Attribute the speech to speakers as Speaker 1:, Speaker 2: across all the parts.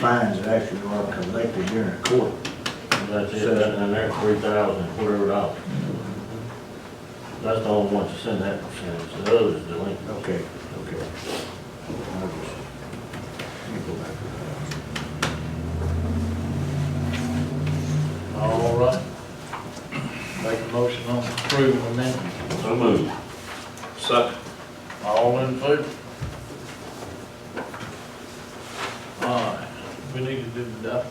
Speaker 1: fines that actually are collected here in court.
Speaker 2: That's it, that's in there, three thousand, whatever dollars. That's the only one that's in that percentage, the others delinquent.
Speaker 1: Okay, okay. I'll just- let me go back to that.
Speaker 3: All right. Make a motion on approval amendment.
Speaker 2: So moved.
Speaker 3: Second. All in favor? All right, we need to do the doc.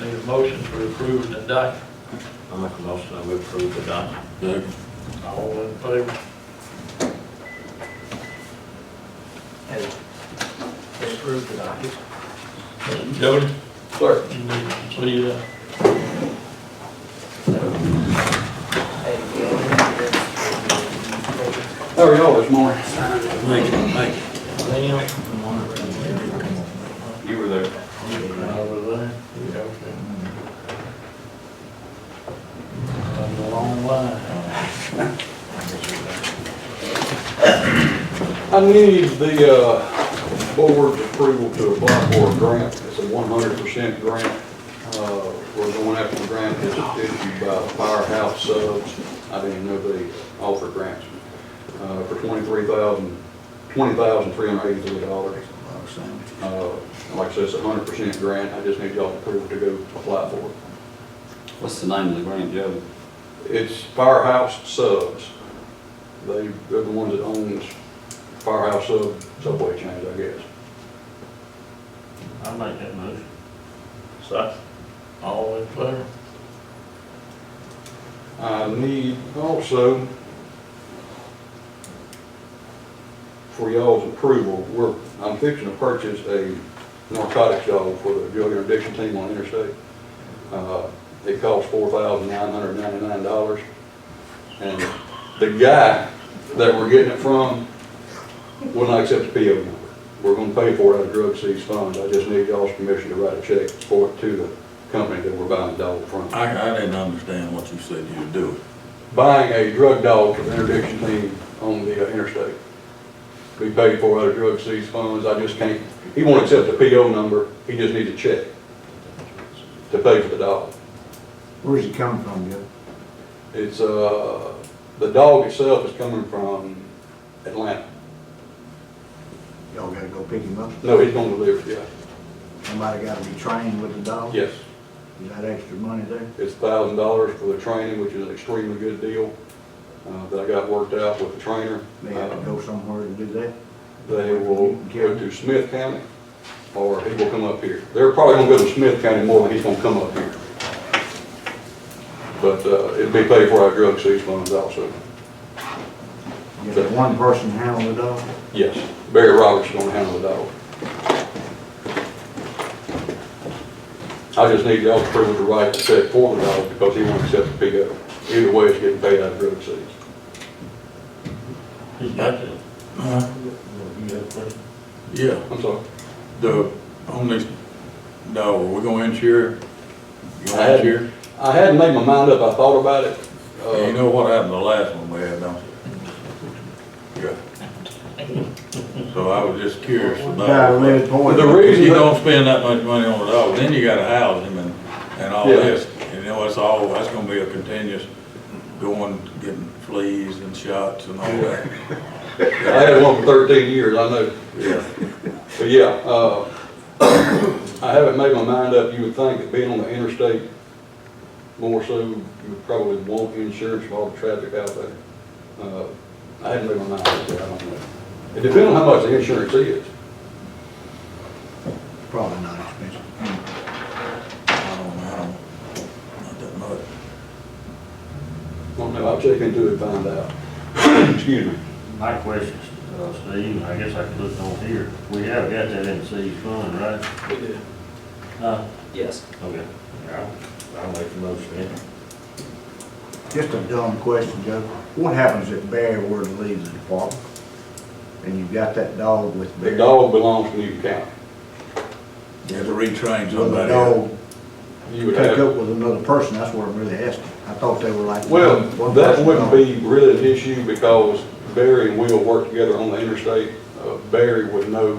Speaker 3: Need a motion for approving the doc.
Speaker 2: I make a motion that we approve the document. Second.
Speaker 3: All in favor?
Speaker 4: Approve the docket.
Speaker 3: Jody?
Speaker 4: Clerk.
Speaker 3: You need to lead it.
Speaker 4: How are y'all this morning?
Speaker 2: Make it, make it. You were there.
Speaker 3: Over there? Yeah, okay. That's a long line.
Speaker 4: I need the uh, board's approval to apply for a grant. It's a one hundred percent grant. Uh, We're going after a grant that's issued by Firehouse Subs. I didn't know they offer grants uh, for twenty-three thousand, twenty thousand three hundred eighty-three dollars. Uh,
Speaker 1: Well, same.
Speaker 4: Like I said, it's a hundred percent grant. I just need y'all approval to go apply for it.
Speaker 5: What's the name of the grant, Joe?
Speaker 4: It's Firehouse Subs. They, they're the ones that owns Firehouse Sub, Subway chains, I guess.
Speaker 2: I make that motion.
Speaker 3: Second. All in favor?
Speaker 4: I need also for y'all's approval, we're, I'm fixing to purchase a narcotics dog for the drug interdiction team on interstate. Uh, It costs four thousand nine hundred ninety-nine dollars. And the guy that we're getting it from will not accept the PO number. We're gonna pay for it out of drug seized funds. I just need y'all's permission to write a check for it to the company that we're buying the dog from.
Speaker 6: I, I didn't understand what you said you were doing.
Speaker 4: buying a drug dog for the interdiction team on the uh, interstate. Be paid for out of drug seized funds, I just can't, he won't accept the PO number, he just needs a check to pay for the dog.
Speaker 1: Where's it coming from, Bill?
Speaker 4: It's, uh, the dog itself is coming from Atlanta.
Speaker 1: Y'all gotta go pick him up?
Speaker 4: No, he's gonna deliver, it, yeah,
Speaker 1: Somebody gotta be trained with the dog?
Speaker 4: yes.
Speaker 1: Is that extra money there?
Speaker 4: It's thousand dollars for the training, which is an extremely good deal, uh, that I got worked out with the trainer.
Speaker 1: They have to
Speaker 4: Uh,
Speaker 1: go somewhere to do that?
Speaker 4: they will go to Smith County, or he will come up here. They're probably gonna go to Smith County more than he's gonna come up here. But, uh, it'd be paid for our drug seized funds also.
Speaker 1: Is there one person handle the dog?
Speaker 4: Yes, Barry Roberts is gonna handle the dog. I just need y'all's approval to write the check for the dog because he won't accept the PO. Either way, it's getting paid out of drug seized.
Speaker 2: He's got to. You got a question?
Speaker 6: Yeah,
Speaker 4: I'm sorry.
Speaker 6: the, on this, no, we're gonna insure, it? you
Speaker 4: I
Speaker 6: gonna
Speaker 4: had-
Speaker 6: insure? it?
Speaker 4: I hadn't made my mind up, I thought about it. uh,
Speaker 6: You know what happened the last one we had, don't you? Yeah. So I was just curious
Speaker 1: Guy
Speaker 6: about.
Speaker 1: lives point.
Speaker 4: The
Speaker 6: If
Speaker 4: reason
Speaker 6: you
Speaker 4: that-
Speaker 6: don't spend that much money on a dog, then you gotta house him and, and all
Speaker 4: Yeah.
Speaker 6: this, and you know, it's all, that's gonna be a continuous going, getting fleas and shots and all that.
Speaker 4: I had one for thirteen years, I know.
Speaker 6: Yeah.
Speaker 4: But yeah, uh, I haven't made my mind up. You would think that being on the interstate, more so, you would probably want insurance for all the traffic out there. Uh, I haven't made my mind up yet, I don't know. It depends on how much the insurance is.
Speaker 1: Probably not expensive.
Speaker 6: I don't know, not that much.
Speaker 4: I don't know, I'll check into it and find out. Excuse me.
Speaker 2: My question, uh, Steve, I guess I could look on here. We have got that in seed fund, right?
Speaker 4: We did.
Speaker 2: Huh?
Speaker 7: Yes.
Speaker 2: Okay. I'll, I'll make the motion then.
Speaker 1: Just a dumb question, Joe. What happens if Barry were to leave the department? And you've got that dog with Barry?
Speaker 4: The dog belongs to Newton County.
Speaker 6: You have to retrain
Speaker 1: Will the
Speaker 6: somebody.
Speaker 1: dog
Speaker 4: You would
Speaker 1: pick
Speaker 4: have.
Speaker 1: up with another person? That's what I'm really asking. I thought they were like.
Speaker 4: Well,
Speaker 1: one
Speaker 4: that
Speaker 1: person
Speaker 4: wouldn't
Speaker 1: dog.
Speaker 4: be really an issue because Barry and Will work together on the interstate. Uh, Barry would know